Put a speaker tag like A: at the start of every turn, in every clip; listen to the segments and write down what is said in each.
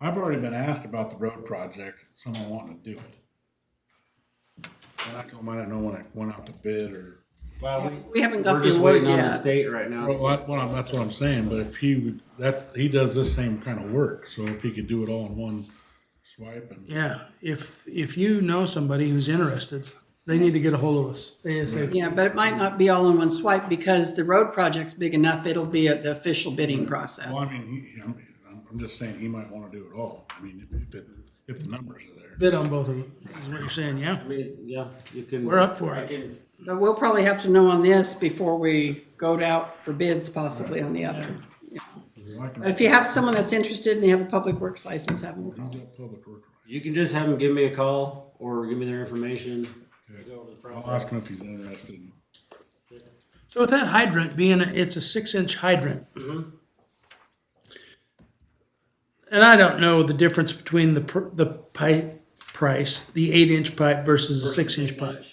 A: I've already been asked about the road project, someone wanting to do it. And I told them I didn't know when it went out to bid or,
B: Well, we,
C: We haven't got
B: we're
C: the
B: just
C: award
B: waiting on the
C: yet.
B: state right now.
A: well, that's what I'm, that's what I'm saying, but if he would, that's, he does this same kind of work, so if he could do it all in one swipe and.
D: Yeah, if, if you know somebody who's interested, they need to get a hold of us ASAP.
C: Yeah, but it might not be all in one swipe because the road project's big enough, it'll be at the official bidding process.
A: Well, I mean, he, he- I'm, I'm just saying he might wanna do it all, I mean, if, if, it- if the numbers are there.
D: Bid on both of them, is what you're saying, yeah?
B: I mean, yeah, you can.
D: We're up for
B: I
D: it.
B: can-
C: But we'll probably have to know on this before we go out for bids possibly on the other.
A: Well, I can-
C: But if you have someone that's interested and they have a public works license, have them call
A: He's
C: us.
A: got public work rights.
B: You can just have them give me a call or give me their information.
A: Okay.
B: Go over the
A: I'll
B: process.
A: ask him if he's interested.
D: So with that hydrant being, it's a six inch hydrant. And I don't know the difference between the, pr- the pipe price, the eight inch pipe versus the six inch pipe.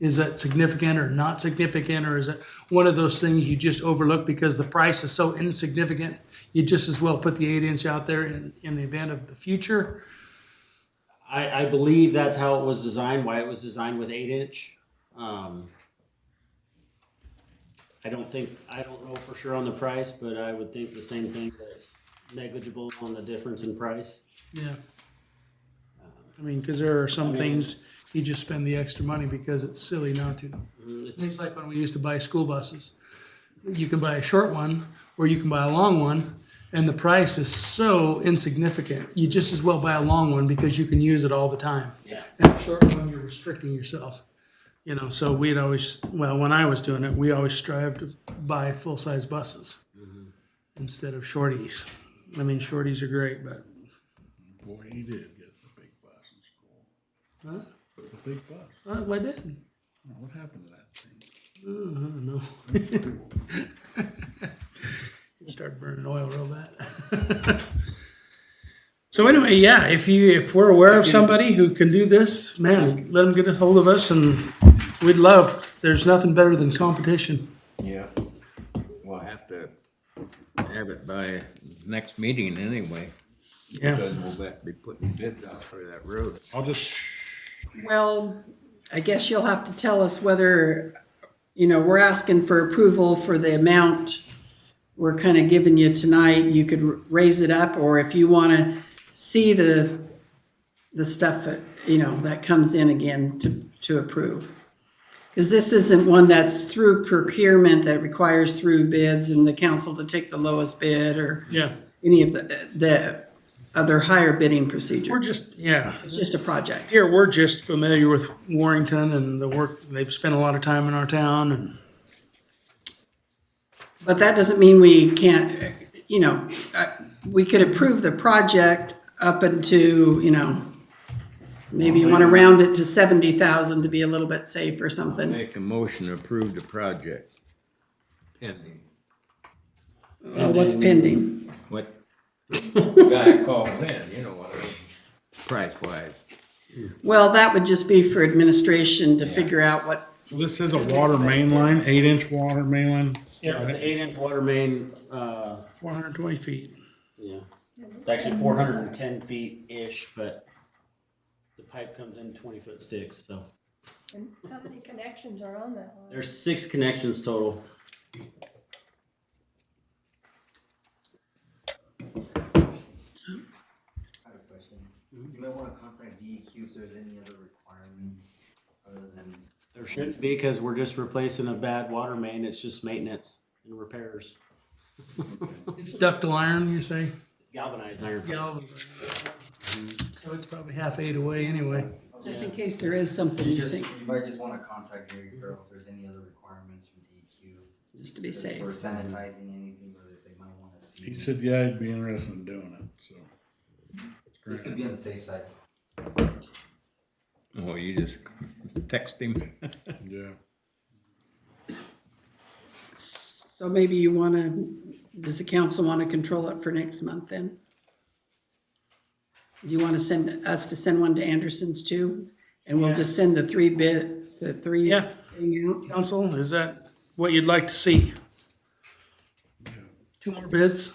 D: Is that significant or not significant, or is it one of those things you just overlook because the price is so insignificant? You just as well put the eight inch out there in, in the event of the future.
B: I, I believe that's how it was designed, why it was designed with eight inch. Um, I don't think, I don't know for sure on the price, but I would think the same thing that's negligible on the difference in price.
D: Yeah. I mean, because there are some
B: mean,
D: things you just spend the extra money because it's silly not to.
B: Mm, It's,
D: It's like when we used to buy school buses. You can buy a short one or you can buy a long one, and the price is so insignificant. You just as well buy a long one because you can use it all the time.
B: yeah,
D: And a short one, you're restricting yourself. You know, so we'd always, well, when I was doing it, we always strived to buy full size buses instead of shorties. I mean, shorties are great, but
A: Boy, he did get the big bus in school.
D: Huh?
A: The big bus.
D: uh, I did.
A: Now, What happened to that thing?
D: Uh, I don't know. It started burning oil real bad. so anyway, yeah, if you if we're aware of somebody who can do this, man, let them get a hold of us, and we'd love. There's nothing better than competition.
E: Yeah, we'll have to have it by next meeting anyway.
D: Yeah,
E: Because we'll have to be putting bids out for that road.
A: I'll just,
C: Well, I guess you'll have to tell us whether, you know, we're asking for approval for the amount we're kind of giving you tonight. You could r- raise it up, or if you want to see the, the stuff that, you know, that comes in again to, to approve. Because this isn't one that's through procurement that requires through bids and the council to take the lowest bid or
D: yeah.
C: any of the, the other higher bidding
D: We're
C: procedure.
D: just yeah.
C: It's just a project.
D: Here we're just familiar with Warrington and the work. They've spent a lot of time in our town, and
C: But that doesn't mean we can't, you know, uh, we could approve the project up into, you know, maybe you want to round it to seventy thousand to be a little bit safe or something.
E: Make a motion to approve the project. Pending.
C: Well, what's pending?
E: What the guy calls in, you know what I mean, price wise.
C: Well, that would just be for administration to figure out what,
A: so this is a water main line, eight inch water main line.
B: yeah, it's an eight inch water main, uh,
D: 420 feet.
B: Yeah, it's actually four hundred and ten feet-ish, but the pipe comes in twenty-foot sticks, so
F: And how many connections are on that line?
B: there's six connections total.
G: I have a question. You might wanna contact DEQ if there's any other requirements other than,
B: There shouldn't be, because we're just replacing a bad water main, it's just maintenance and repairs.
D: It's ductile iron, you say?
B: It's galvanized iron.
D: Yeah. I'll- So it's probably half eight away anyway.
C: just in case there is something
G: you
C: you
G: just,
C: think,
G: you might just wanna contact Gary Carroll if there's any other requirements from DEQ.
C: just to be safe.
G: Or sanitizing anything, or that they might wanna see.
A: He said, yeah, he'd be interested in doing it, so.
G: Just to be on the safe side.
E: Oh, you just text him.
A: Yeah.
C: So maybe you want to, does the council want to control it for next month then? Do you want to send us to send one to Anderson's too? And we'll just send the three bit, the three
D: Yeah.
C: thing out?
D: Council, is that what you'd like to see? Two more bids?